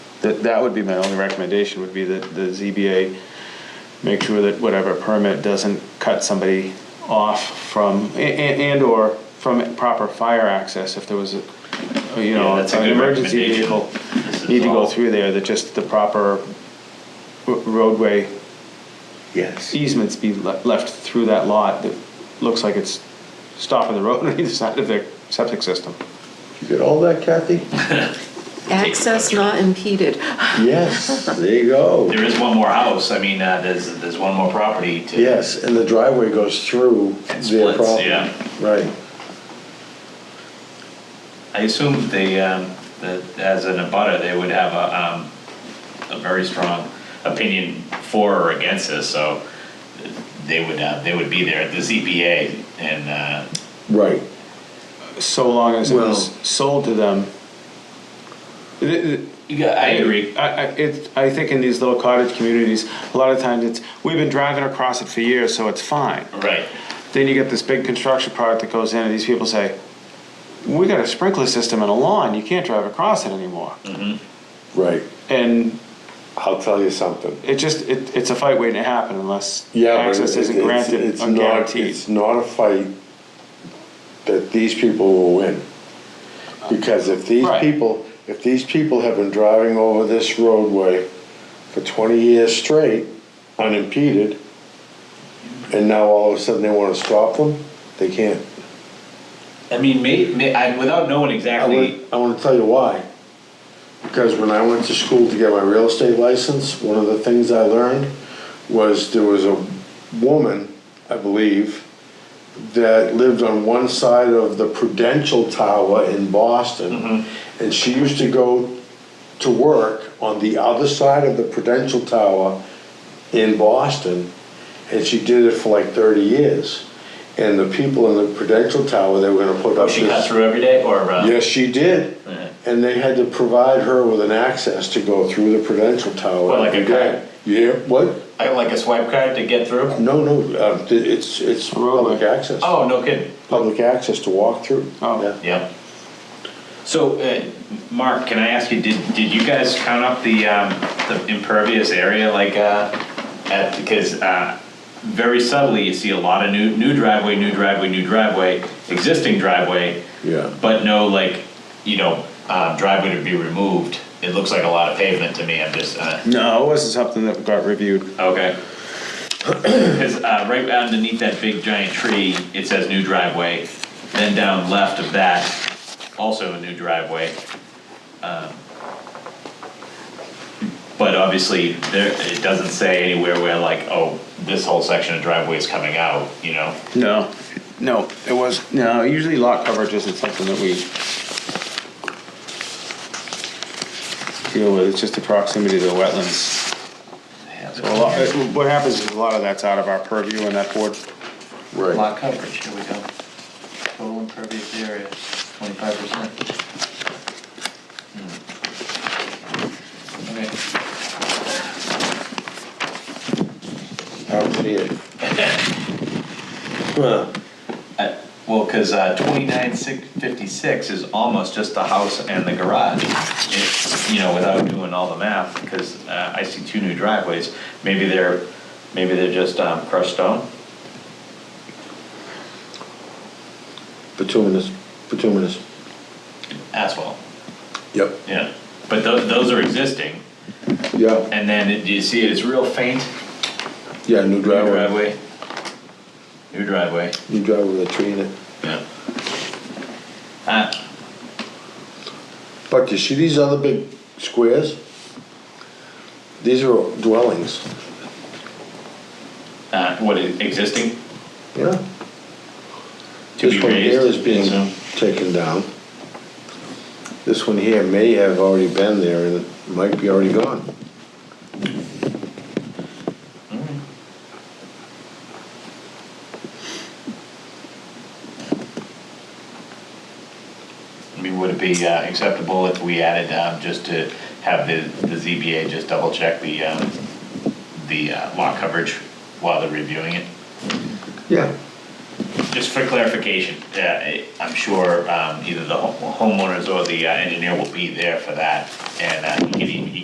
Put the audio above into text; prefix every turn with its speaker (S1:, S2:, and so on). S1: That, that would be my only recommendation, would be that the ZBA make sure that whatever permit doesn't cut somebody off from, and, and/or from proper fire access if there was, a you know,
S2: Yeah, that's a
S1: an
S2: good
S1: emergency
S2: recommendation.
S1: vehicle
S2: This is
S1: need to go
S2: all-
S1: through there, that just the proper r- roadway
S3: Yes.
S1: easements be le- left through that lot that looks like it's stopping the road on either side of their septic system.
S3: You got all that, Kathy?
S4: Access not impeded.
S3: Yes, there you go.
S2: There is one more house, I mean, uh, there's, there's one more property to.
S3: Yes, and the driveway goes through
S2: And
S3: their
S2: splits,
S3: property.
S2: yeah.
S3: Right.
S2: I assume they, um, that as an abutter, they would have a, um, a very strong opinion for or against this, so they would, uh, they would be there at the ZBA and, uh,
S3: Right.
S1: So long as it was
S3: Well-
S1: sold to them. Th- th-
S2: I agree.
S1: I, I, it, I think in these little cottage communities, a lot of times it's, we've been driving across it for years, so it's fine.
S2: Right,
S1: Then you get this big construction product that goes in and these people say, we got a sprinkler system and a lawn, you can't drive across it anymore.
S3: Right.
S1: And
S5: I'll tell you something.
S1: it just, it, it's a fight waiting to happen unless
S5: Yeah, but
S1: access
S5: it-
S1: isn't
S5: it's-
S1: granted
S5: it's
S1: or
S5: not-
S1: guaranteed.
S5: It's not a fight that these people will win. Because if these
S1: Right.
S5: people, if these people have been driving over this roadway for twenty years straight, unimpeded, and now all of a sudden they wanna stop them, they can't.
S2: I mean, may, may, I, without knowing
S5: I
S2: exactly,
S5: want, I want to tell you why. Because when I went to school to get my real estate license, one of the things I learned was there was a woman, I believe, that lived on one side of the Prudential Tower in Boston.
S2: Mm-hmm.
S5: And she used to go to work on the other side of the Prudential Tower in Boston. And she did it for like 30 years. And the people in the Prudential Tower, they were gonna put up this.
S2: she cut through every day or, uh?
S5: Yes, she did.
S2: Uh-huh.
S5: And they had to provide her with an access to go through the Prudential Tower.
S2: What, like a
S5: every day.
S2: card?
S5: Yeah, what?
S2: I got like a swipe card to get through?
S5: No, no, uh, th- it's, it's
S1: Roadway.
S5: public access.
S2: Oh, no kidding.
S5: Public access to walk through.
S1: Oh.
S5: Yeah.
S2: Yep. So, uh, Mark, can I ask you, did, did you guys count up the, um, the impervious area like, uh, at, because, uh, very subtly, you see a lot of new, new driveway, new driveway, new driveway, existing driveway,
S5: Yeah.
S2: but no like, you know, uh, driveway to be removed. It looks like a lot of pavement to me, I'm just, uh,
S1: No, it wasn't something that got reviewed.
S2: okay. Because, uh, right underneath that big giant tree, it says new driveway, then down left of that, also a new driveway. Um, But obviously, there, it doesn't say anywhere where like, oh, this whole section of driveway is coming out, you know?
S1: No, no, it was, no, usually lot coverage isn't something that we deal with, it's just the proximity to the wetlands. So a lot, what happens is a lot of that's out of our purview and that board
S5: Right.
S6: Lot coverage, here we go. Total impervious area, twenty-five percent. Hmm. Okay,
S5: I don't see it. Huh.
S2: Uh, Well, because twenty-nine six fifty-six is almost just the house and the garage. It- You know, without doing all the math, because I see two new driveways, maybe they're, maybe they're just um, crushed stone?
S5: Bituminous, bituminous.
S2: Asphalt,
S5: Yep.
S2: yeah. But those, those are existing,
S5: Yeah,
S2: and then it- do you see it, it's real faint,
S5: yeah, new
S2: new
S5: driveway.
S2: driveway. New driveway,
S5: New driveway with a tree in it.
S2: yeah. Uh,
S5: But you see these other big squares? These are dwellings,
S2: uh, What, existing?
S5: yeah?
S2: To be
S5: This one here
S2: raised,
S5: is being
S2: so-
S5: taken down. This one here may have already been there and it might be already gone.
S2: I mean, would it be uh, acceptable if we added, um, just to have the, the ZBA just double check the, um, the uh, lot coverage while they're reviewing it?
S5: Yeah.
S2: Just for clarification, uh, I- I'm sure um, either the home- homeowners or the uh, engineer will be there for that, and uh, he can, e- he